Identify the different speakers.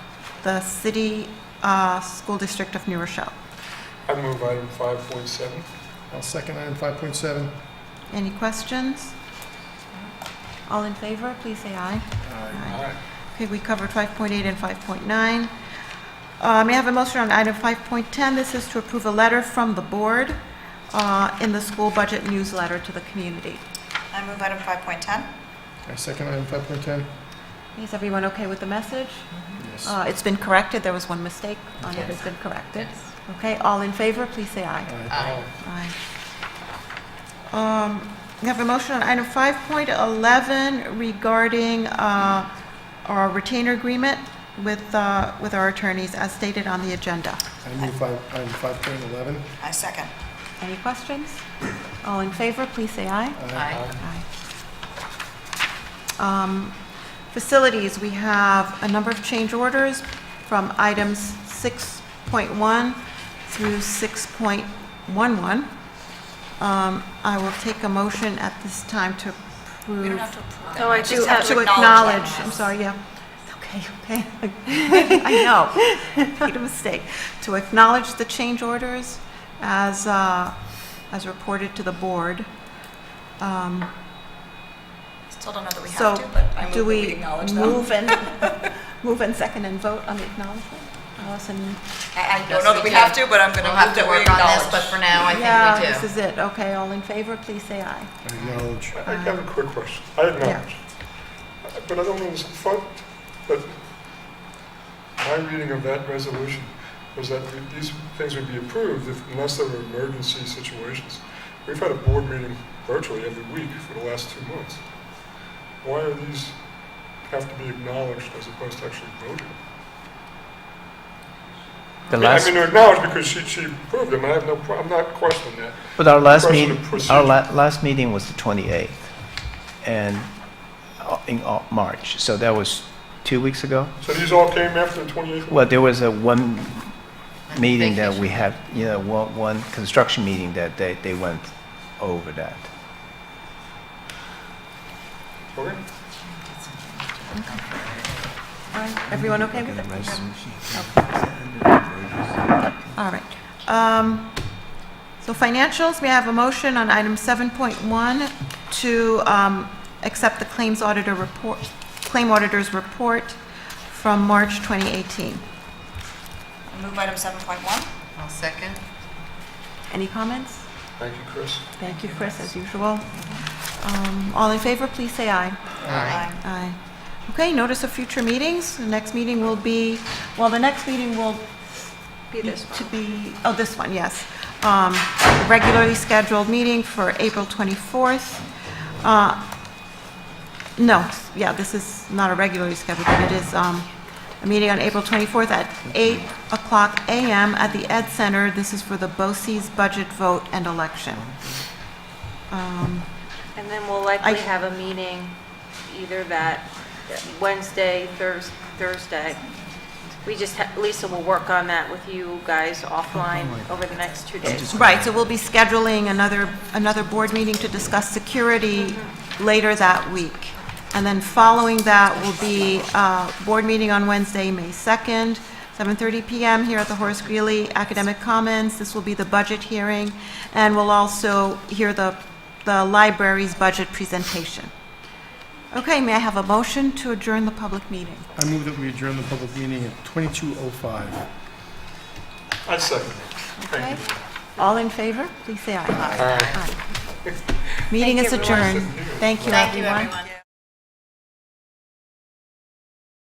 Speaker 1: the City uh, School District of New Rochelle.
Speaker 2: I move item 5.7.
Speaker 3: I'll second item 5.7.
Speaker 1: Any questions? All in favor, please say aye.
Speaker 3: Aye.
Speaker 2: Aye.
Speaker 1: Okay, we covered 5.8 and 5.9. Uh, May I have a motion on item 5.10? This is to approve a letter from the board uh, in the school budget newsletter to the community.
Speaker 4: I move item 5.10.
Speaker 3: I second item 5.10.
Speaker 1: Is everyone okay with the message?
Speaker 3: Yes.
Speaker 1: Uh, It's been corrected, there was one mistake on it, it's been corrected. Okay, all in favor, please say aye.
Speaker 3: Aye.
Speaker 2: Aye.
Speaker 1: Aye. Um, We have a motion on item 5.11 regarding uh, our retainer agreement with, uh, with our attorneys as stated on the agenda.
Speaker 3: I move five- item 5.11.
Speaker 4: I second.
Speaker 1: Any questions? All in favor, please say aye.
Speaker 3: Aye.
Speaker 1: Aye. Um, Facilities, we have a number of change orders from items 6.1 through 6.11. Um, I will take a motion at this time to approve.
Speaker 4: approve.
Speaker 1: Oh,
Speaker 5: No, I do have
Speaker 1: To
Speaker 5: to
Speaker 1: acknowledge, I'm sorry, yeah. Okay, okay. I know, made a mistake. To acknowledge the change orders as, uh, as reported to the board. Um,
Speaker 4: Still don't know that we
Speaker 1: So,
Speaker 4: have to, but I
Speaker 1: Do
Speaker 4: move that we
Speaker 1: we
Speaker 4: acknowledge them.
Speaker 1: move and, move and second and vote on the acknowledgement? Allison?
Speaker 4: I don't know that we have to, but I'm going to move that we acknowledge.
Speaker 5: But for now, I
Speaker 1: Yeah,
Speaker 5: think we
Speaker 1: this
Speaker 5: do.
Speaker 1: is it. Okay, all in favor, please say aye.
Speaker 3: I Acknowledge.
Speaker 2: I I have a quick question. I acknowledge. Uh, But I don't know this in front, but my reading of that resolution was that th- these things would be approved if- unless there were emergency situations. We've had a board meeting virtually every week for the last two months. Why are these have to be acknowledged as opposed to actually voted?
Speaker 6: The
Speaker 2: I mean- I
Speaker 6: last,
Speaker 2: mean, they're acknowledged because she, she approved them. I have no, pro- I'm not questioning that.
Speaker 6: but our last
Speaker 2: question of
Speaker 6: meet, our
Speaker 2: procedure.
Speaker 6: la- last meeting was the 28th, and uh, in uh, March, so that was two weeks ago.
Speaker 2: So these all came after the 28th?
Speaker 6: Well, there was a one meeting that
Speaker 5: Vacation.
Speaker 6: we had, you know, one, one construction meeting that they, they went over that.
Speaker 2: Okay.
Speaker 1: All right, everyone okay with it? All right. Um, So financials, we have a motion on item 7.1 to um, accept the claims auditor report, claim auditor's report from March 2018.
Speaker 4: Move item 7.1.
Speaker 5: I'll second.
Speaker 1: Any comments?
Speaker 2: Thank you, Chris.
Speaker 1: Thank you, Chris, as usual. Um, All in favor, please say aye.
Speaker 4: Aye.
Speaker 1: Aye. Okay, notice of future meetings. The next meeting will be, well, the next meeting will be to be, oh, this one, yes. Um, Regularly scheduled meeting for April 24th. Uh, No, yeah, this is not a regularly scheduled, but it is um, a meeting on April 24th at 8 o'clock a.m. at the Ed Center. This is for the BOCES budget vote and election. Um,
Speaker 7: And then we'll likely
Speaker 1: I-
Speaker 7: have a meeting either that Wednesday, Thurs- Thursday. We just, ha- Lisa will work on that with you guys offline over the next two days.
Speaker 1: Right, so we'll be scheduling another, another board meeting to discuss security later that week. And then following that will be uh board meeting on Wednesday, May 2nd, 7:30 PM here at the Horace Greeley Academic Commons. This will be the budget hearing, and we'll also hear the, the library's budget presentation. Okay, may I have a motion to adjourn the public meeting?
Speaker 3: I move that we adjourn the public meeting at 22:05.
Speaker 2: I second it.
Speaker 1: Okay.
Speaker 2: Thank you.
Speaker 1: All in favor, please say aye.
Speaker 2: All right.
Speaker 1: Meeting is adjourned. Thank you, everyone.
Speaker 4: Thank you, everyone.